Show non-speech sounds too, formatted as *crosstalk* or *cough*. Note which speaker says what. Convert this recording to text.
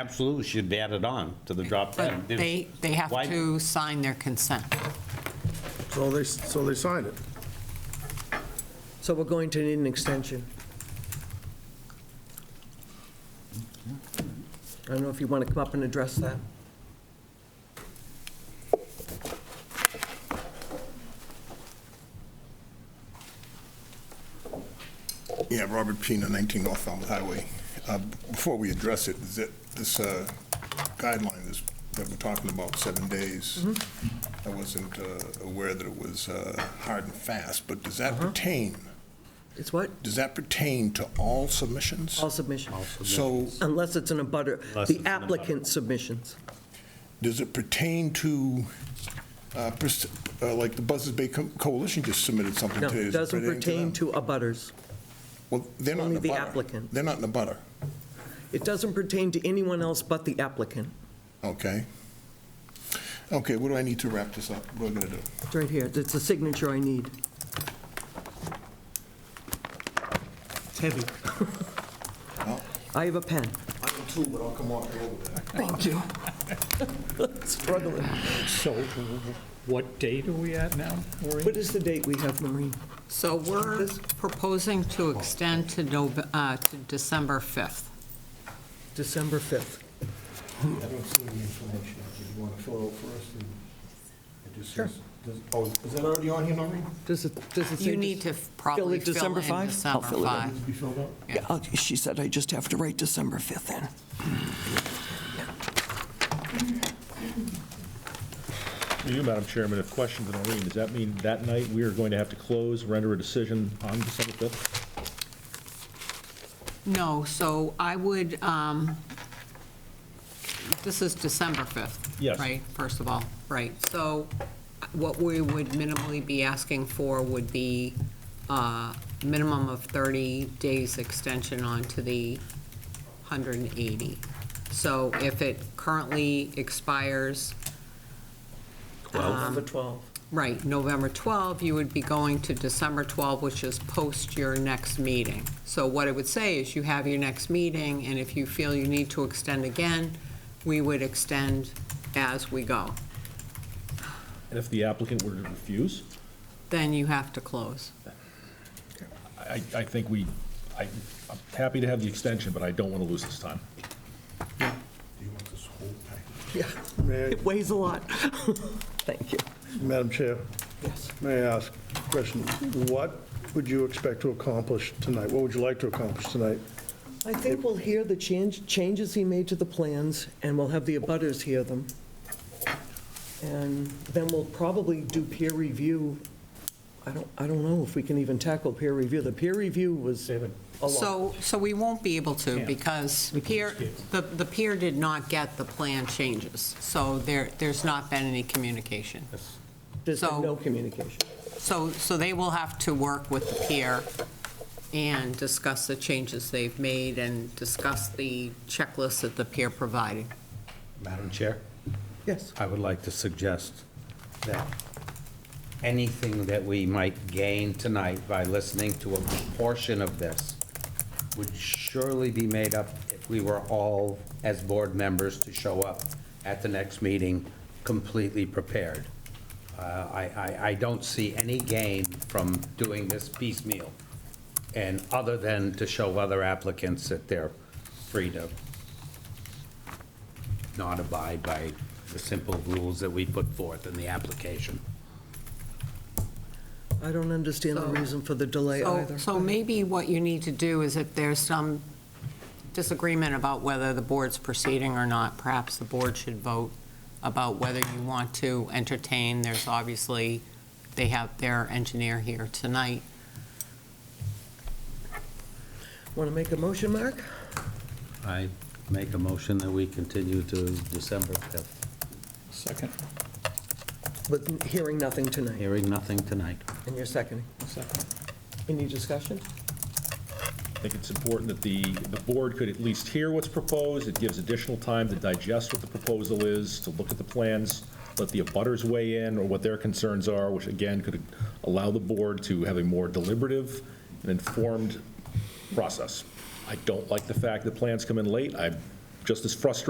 Speaker 1: absolutely should be added on to the drop down.
Speaker 2: But they, they have
Speaker 1: Why-
Speaker 2: to sign their consent.
Speaker 3: So they, so they signed it.
Speaker 4: So we're going to need an extension. I don't know if you want to come up and address that.
Speaker 5: Yeah, Robert Pina, 19 North Falmouth Highway. Uh, Before we address it, is that this uh, guideline is- that we're talking about, seven days,
Speaker 4: Mm-hmm.
Speaker 5: I wasn't uh, aware that it was uh, hard and fast, but does
Speaker 4: Uh-huh.
Speaker 5: that pertain,
Speaker 4: It's what?
Speaker 5: does that pertain to all submissions?
Speaker 4: All submissions,
Speaker 5: So
Speaker 4: unless it's an abutter,
Speaker 1: Unless it's
Speaker 4: the
Speaker 1: an abutter.
Speaker 4: applicant submissions.
Speaker 5: does it pertain to, uh, pers- uh, like the Buzzards Bay Co- Coalition just submitted something
Speaker 4: No,
Speaker 5: today?
Speaker 4: it
Speaker 5: Does it
Speaker 4: doesn't pertain
Speaker 5: them?
Speaker 4: to abutters.
Speaker 5: Well, they're not in
Speaker 4: only
Speaker 5: a
Speaker 4: the
Speaker 5: butter.
Speaker 4: applicant.
Speaker 5: They're not in a butter,
Speaker 4: It doesn't pertain to anyone else but the applicant.
Speaker 5: okay? Okay, what do I need to wrap this up? What am I going to do?
Speaker 4: It's right here, it's the signature I need. It's heavy. I have a pen.
Speaker 5: I am too, but I'll come off the road with that.
Speaker 4: Thank you. Struggling.
Speaker 6: So what date are we at now, Maureen?
Speaker 4: What is the date we have, Maureen?
Speaker 2: So we're proposing to extend to Nov- uh, to December 5th.
Speaker 4: December 5th.
Speaker 7: I don't see any information. Do you want to fill it out for us? and It just says, does- oh, is that already on here, Noreen?
Speaker 4: Does it, does it say?
Speaker 2: You need to probably
Speaker 4: it
Speaker 2: fill in
Speaker 4: December 5? I'll
Speaker 2: December
Speaker 4: fill it in.
Speaker 2: 5.
Speaker 7: Needs to be filled out?
Speaker 4: Yeah, I'll- She said I just have to write December 5th in.
Speaker 8: To you, Madam Chairman, a question to Noreen. Does that mean that night we are going to have to close, render a decision on December 5th?
Speaker 2: No, so I would, um, this is December 5th.
Speaker 8: Yes.
Speaker 2: Right, first of all, right. So what we would minimally be asking for would be a minimum of 30 days extension on to the 180. So if it currently expires,
Speaker 4: 12. The 12.
Speaker 2: right, November 12, you would be going to December 12, which is post your next meeting. So what I would say is you have your next meeting, and if you feel you need to extend again, we would extend as we go.
Speaker 8: And if the applicant were to refuse,
Speaker 2: Then you have to close.
Speaker 8: I, I think we, I- I'm happy to have the extension, but I don't want to lose this time.
Speaker 7: Do you want this whole package?
Speaker 4: Yeah,
Speaker 3: May,
Speaker 4: it weighs a lot. *laughs* Thank you.
Speaker 3: Madam Chair,
Speaker 4: Yes.
Speaker 3: may I ask a question? What would you expect to accomplish tonight? What would you like to accomplish tonight?
Speaker 4: I think we'll hear the change, changes he made to the plans, and we'll have the abutters hear them. And then we'll probably do peer review. I don't, I don't know if we can even tackle peer review. The peer review was a lot.
Speaker 2: So, so we won't be able to, because peer, the the peer did not get the plan changes, so there, there's not been any communication.
Speaker 4: There's
Speaker 2: so-
Speaker 4: been no communication.
Speaker 2: So, so they will have to work with the peer and discuss the changes they've made and discuss the checklist that the peer provided.
Speaker 1: Madam Chair,
Speaker 4: Yes.
Speaker 1: I would like to suggest that anything that we might gain tonight by listening to a portion of this would surely be made up if we were all, as board members, to show up at the next meeting completely prepared. Uh, I, I, I don't see any gain from doing this piecemeal, and other than to show other applicants that they're free to not abide by the simple rules that we put forth in the application.
Speaker 4: I don't understand the
Speaker 2: So-
Speaker 4: reason for the delay
Speaker 2: So-
Speaker 4: either.
Speaker 2: So maybe what you need to do is if there's some disagreement about whether the board's proceeding or not, perhaps the board should vote about whether you want to entertain. There's obviously, they have their engineer here tonight.
Speaker 4: Want to make a motion, Mark?
Speaker 1: I make a motion that we continue to December 5th,
Speaker 6: Second,
Speaker 4: With hearing nothing tonight,
Speaker 1: hearing nothing tonight.
Speaker 4: and you're seconding.
Speaker 6: second.
Speaker 4: Any discussion?
Speaker 8: I think it's important that the, the board could at least hear what's proposed. It gives additional time to digest what the proposal is, to look at the plans, let the abutters weigh in or what their concerns are, which again could allow the board to have a more deliberative and informed process. I don't like the fact that plans come in late. I just as frustrating